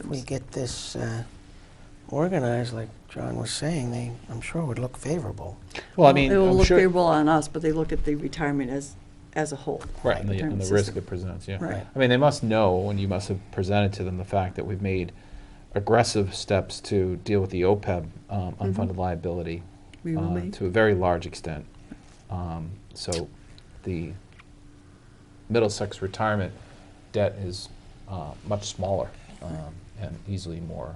If we get this uh, organized, like John was saying, they, I'm sure would look favorable. Well, I mean, It will I'm look sure, favorable on us, but they look at the retirement as, as a whole. right, and the, in and terms the of risk system. it presents, yeah. Right. I mean, they must know, and you must have presented to them the fact that we've made aggressive steps to deal with the OPEB um, unfunded liability Mm-hmm. We will uh, make. to a very large extent. Um, So the Middlesex retirement debt is uh, much smaller um, and easily more,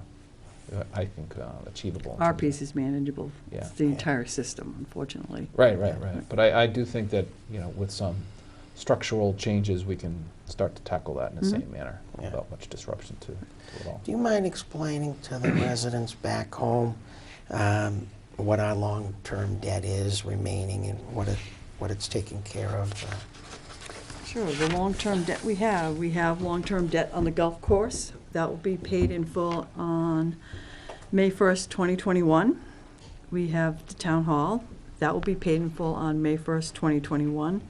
uh, I think, uh, achievable. in Our terms of- piece is manageable. Yeah. It's the entire system, unfortunately. Right, right, right. But I, I do think that, you know, with some structural changes, we can start to tackle that in the same manner Yeah. without much disruption to, to it all. Do you mind explaining to the residents back home um, what our long-term debt is remaining and what it, what it's taking care of? uh, Sure, the long-term debt we have, we have long-term debt on the golf course. That will be paid in full on May 1st, 2021. We have the town hall. That will be paid in full on May 1st, 2021.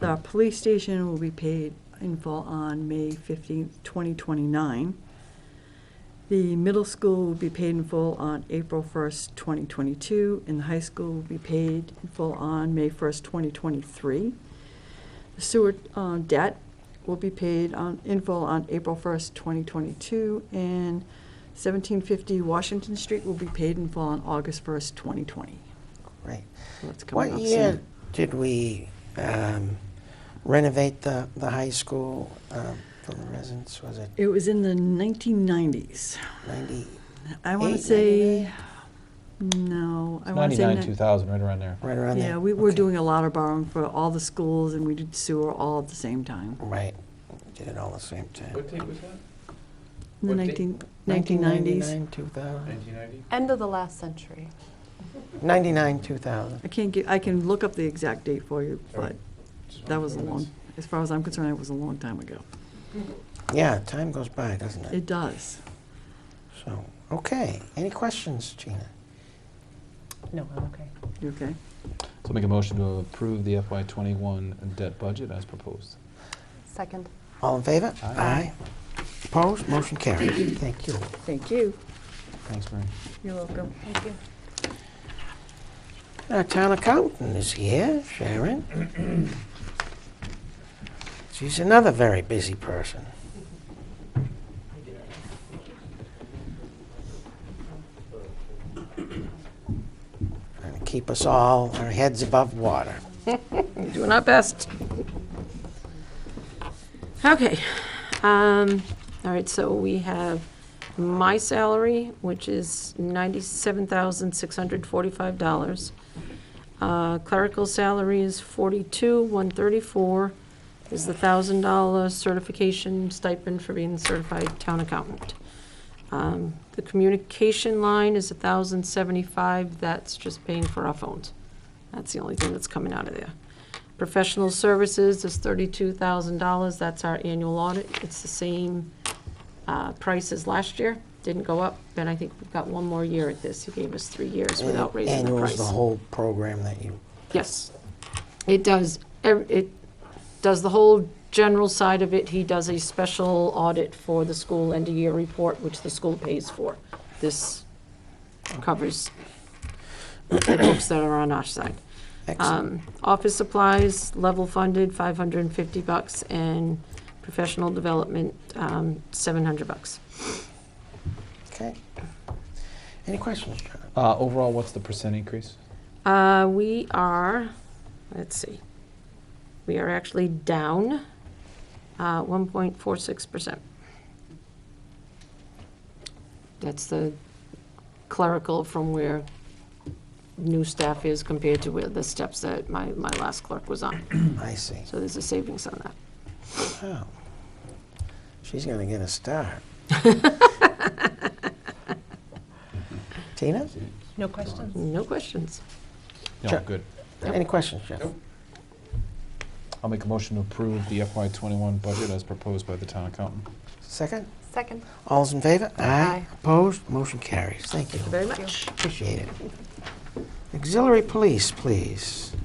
The police station will be paid in full on May 15th, 2029. The middle school will be paid in full on April 1st, 2022, and the high school will be paid in full on May 1st, 2023. The Sewer uh, debt will be paid on, in full on April 1st, 2022, and 1750 Washington Street will be paid in full on August 1st, 2020. Right. So that's coming What up year soon. did we um, renovate the, the high school um, for the residents? Was it It was in the 1990s. 90, I want Eight, to say, no, I want to say. Ninety-nine, ni- two thousand, right around there. right around there? Yeah, we were Okay. doing a lot of borrowing for all the schools, and we did sewer all at the same time. Right. Did it all at the same time. date was that? In the What date? 19 1990s. 1999, 2000. 1990? End of the last century. 99, 2000. I can't get, I can look up the exact date for you, but Alright. Just that wanted was a to know long, as far as I'm concerned, it was a long time ago. Yeah, time goes by, doesn't it? It does. So, okay. Any questions, Gina? No, I'm okay. You okay? So make a motion to approve the FY twenty-one debt budget as proposed. Second. All in favor? Aye. Opposed? Motion carried. Thank you. Thank you. Thanks, Mary. You're welcome. Thank you. Our town accountant is here, Sharon. She's another very busy person. Trying to keep us all, our heads above water. Doing our best. Okay, um, all right, so we have my salary, which is ninety-seven thousand, six hundred forty-five dollars. Uh, clerical salary is forty-two, one thirty-four, is the thousand dollar certification stipend for being certified town accountant. Um, the communication line is a thousand seventy-five, that's just paying for our phones. That's the only thing that's coming out of there. Professional services is thirty-two thousand dollars, that's our annual audit. It's the same uh, price as last year, didn't go up, and I think we've got one more year at this. He gave us three years without raising the Annual is price. the whole program that you, Yes. It does, ev- it does the whole general side of it. He does a special audit for the school end-of-year report, which the school pays for. This covers the books that are on our side. excellent. Um, Office supplies, level funded, 550 bucks, and professional development, um, 700 bucks. Okay. Any questions, John? Uh, overall, what's the percent increase? Uh, We are, let's see, we are actually down uh, 1.46%. That's the clerical from where new staff is compared to where the steps that my, my last clerk was on. I see. So there's a savings on that. Wow. She's going to get a star. Tina? No questions? No questions. No, Sure. good. Any questions, Jeff? Nope. I'll make a motion to approve the FY twenty-one budget as proposed by the town accountant. Second? Second. All's in favor? Aye. Opposed? Motion carries. Thank you. Thank you very much. Appreciate it. Auxiliary police, please.